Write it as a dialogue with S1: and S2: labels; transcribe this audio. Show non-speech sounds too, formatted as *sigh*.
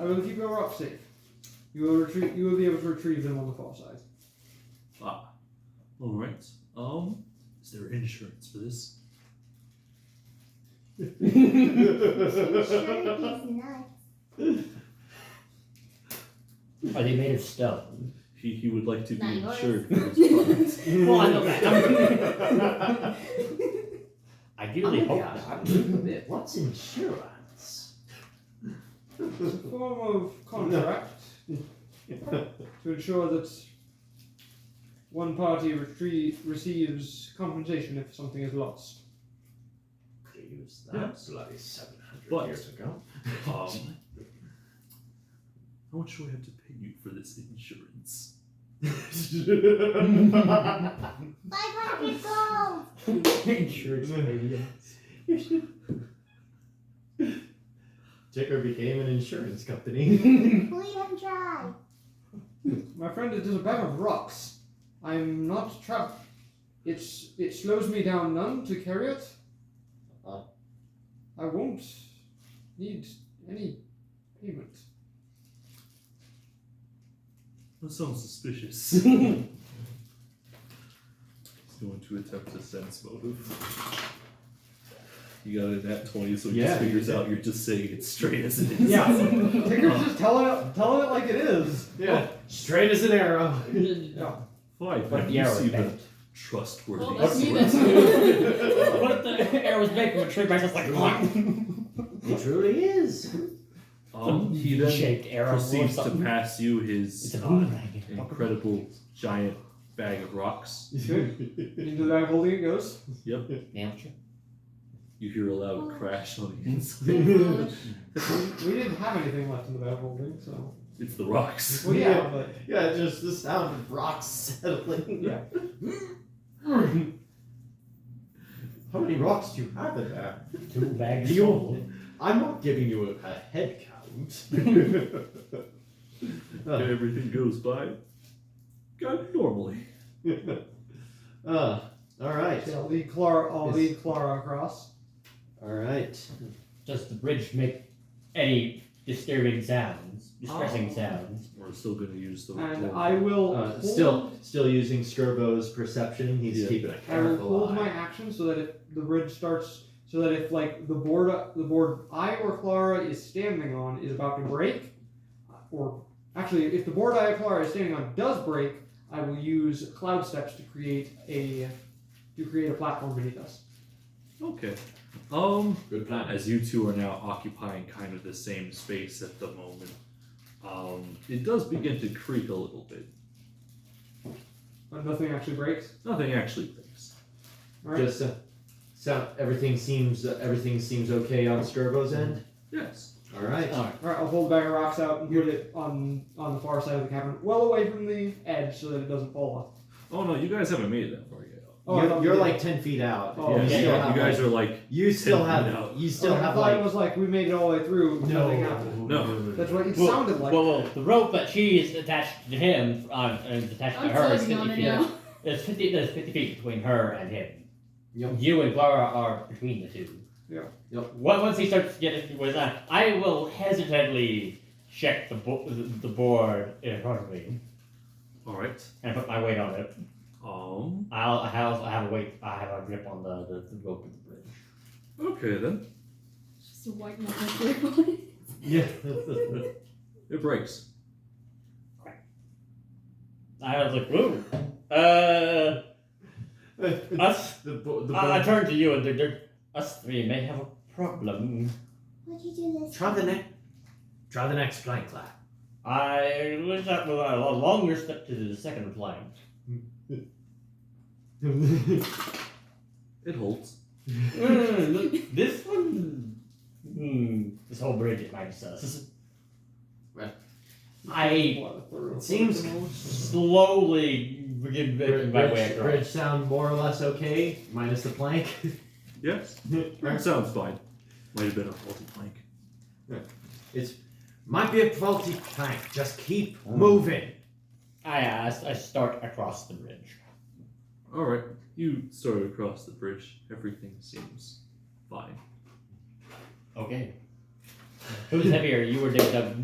S1: I will keep your rock safe. You will retrieve. You will be able to retrieve them on the far side.
S2: All right. Um, is there insurance for this?
S3: Sure,
S4: Are
S3: he's nuts.
S4: they made of stone?
S2: He, he would like to be
S3: Not yours.
S2: insured for this product.
S3: *laughs*
S4: Well, I
S1: *laughs*
S4: know that.
S5: Oh
S4: Ideally,
S5: my
S4: hope
S5: God,
S4: not.
S5: I'm moving a bit.
S4: What's insurance?
S1: It's a form of contract to ensure that one party retrieve, receives compensation if something is lost.
S4: Could have used that
S2: Yeah.
S4: bloody seven hundred
S2: But-
S4: years ago.
S2: Um, how much do I have to pay you for this insurance?
S3: Five hundred gold.
S4: insurance
S5: Ticker became an insurance
S3: *laughs*
S5: company.
S3: Bleed him
S5: *laughs*
S3: dry.
S1: My friend, it is a bag of rocks. I'm not trapped. It's it slows me down none to carry it.
S4: Uh-huh.
S1: I won't need any payment.
S2: That sounds suspicious. He's going to attempt a sense motive. You got a nat 20, so he
S5: Yeah,
S2: just
S5: you
S2: figures
S5: did.
S2: out you're just saying it straight as it *laughs* is.
S1: Ticker's just telling it telling it like it is.
S5: yeah, straight as an arrow.
S1: Yeah.
S2: Fine,
S4: But
S2: but
S4: the
S2: you
S4: arrow
S2: see
S4: is
S2: the
S4: bent.
S2: trustworthy.
S6: Well, that's me
S2: expert.
S6: that's new.
S4: *laughs* What if the arrow was made from a tree branch? It's like
S5: It truly is.
S2: Um, he then
S4: shaped arrow or
S2: proceeds to
S4: something.
S2: pass you
S4: It's
S2: his uh,
S4: an boomerang.
S2: incredible giant bag of rocks.
S1: Into that holding it goes.
S4: Nailed you.
S2: You hear a loud crash on the inside.
S3: Gosh.
S1: We didn't have anything left in the bag holding, so
S2: It's the
S1: *laughs*
S2: rocks.
S1: well yeah, but
S5: yeah, just the sound of rocks settling. *laughs*
S1: Yeah.
S5: How many rocks do you have in there?
S4: Two bags.
S5: Do you-
S4: full.
S5: I'm not giving you a, a head count. *laughs* uh, *laughs*
S2: Everything goes by kind of normally.
S5: uh, all right,
S1: I'll lead Clara I'll
S5: Yes.
S1: lead Clara across.
S5: all right.
S4: Does the bridge make any disturbing sounds? Distressing
S2: Oh.
S4: sounds?
S2: We're still going to use the
S1: And
S2: the-
S1: I will
S5: Uh,
S1: hold-
S5: still, still using Skirbo's perception. He's
S2: Yeah.
S5: keeping a
S1: I will
S5: careful
S1: hold my
S5: eye.
S1: action so that if the bridge starts, so that if like the board, the board I or Clara is standing on is about to break, or actually if the board I or Clara is standing on does break, I will use cloud steps to create a to create a platform beneath us.
S2: Okay. Um,
S5: Good plan.
S2: as you two are now occupying kind of the same space at the moment, um, it does begin to creak a little bit.
S1: But nothing actually breaks.
S2: Nothing actually breaks.
S1: All right.
S5: Just uh, sound. Everything seems. Uh, everything seems okay on Skirbo's end.
S2: Yes.
S5: All right.
S4: Alright.
S1: All right. I'll hold the bag of rocks out and put it on on the far side of the cavern, well away from the edge, so that it doesn't fall off.
S2: Oh no, you guys haven't made it that far yet.
S1: Oh, I
S5: you're
S1: thought
S5: you're
S1: we
S5: like ten feet out.
S1: Oh,
S2: yeah,
S5: you
S4: yeah,
S5: still
S2: yeah,
S5: have,
S2: you guys
S5: like,
S2: are like
S5: you still
S2: 10 feet
S5: have.
S2: out.
S5: You still
S1: oh, I
S5: have
S1: thought
S5: like.
S1: it was like we made it all the way through. Nothing happened.
S2: No.
S1: That's what it
S4: Well,
S1: sounded like.
S4: Whoa, whoa. The rope that she is attached to him, um, and is attached to
S6: I'm
S4: her, is
S6: floating on
S4: 50
S6: it
S4: feet.
S6: now.
S4: There's 50, there's 50 feet between her and him.
S5: Yep.
S4: You and Clara are between the two.
S1: Yeah.
S5: Yep.
S4: Once once he starts getting with that, I will hesitantly check the, bo- the board in front of me
S2: All right.
S4: and put my weight on it.
S2: Um.
S4: I'll, I have, I have a weight, I have a grip on the, the, the rope of the bridge.
S2: Okay then.
S6: *laughs* Just a white knuckle *laughs* through.
S1: *laughs*
S5: Yeah.
S2: It breaks.
S4: I was like, whoa. Uh,
S5: the
S4: us,
S5: bo- the
S4: I, I
S5: bo-
S4: turned to you and they're, they're, us three may have a problem.
S3: Would you do this?
S5: *laughs* Try the next. Try the next flank clap.
S4: I wish that was a lo- longer step to the second plank.
S2: It holds.
S4: Mm, look, this one. Hmm, this whole bridge is minus us.
S5: Right.
S4: I
S5: it seems
S4: slowly begin making
S5: bridge,
S4: my way
S5: bridge
S4: across.
S5: sound more or less okay, minus the plank. *laughs*
S2: Yes. That sounds fine. Might have been a faulty plank.
S5: it's might be a faulty plank. Just keep
S1: Hmm.
S5: moving.
S4: I asked, I start across the bridge.
S2: All right. You started across the bridge. Everything seems fine.
S4: Okay. Who's heavier? You or Dig Dug?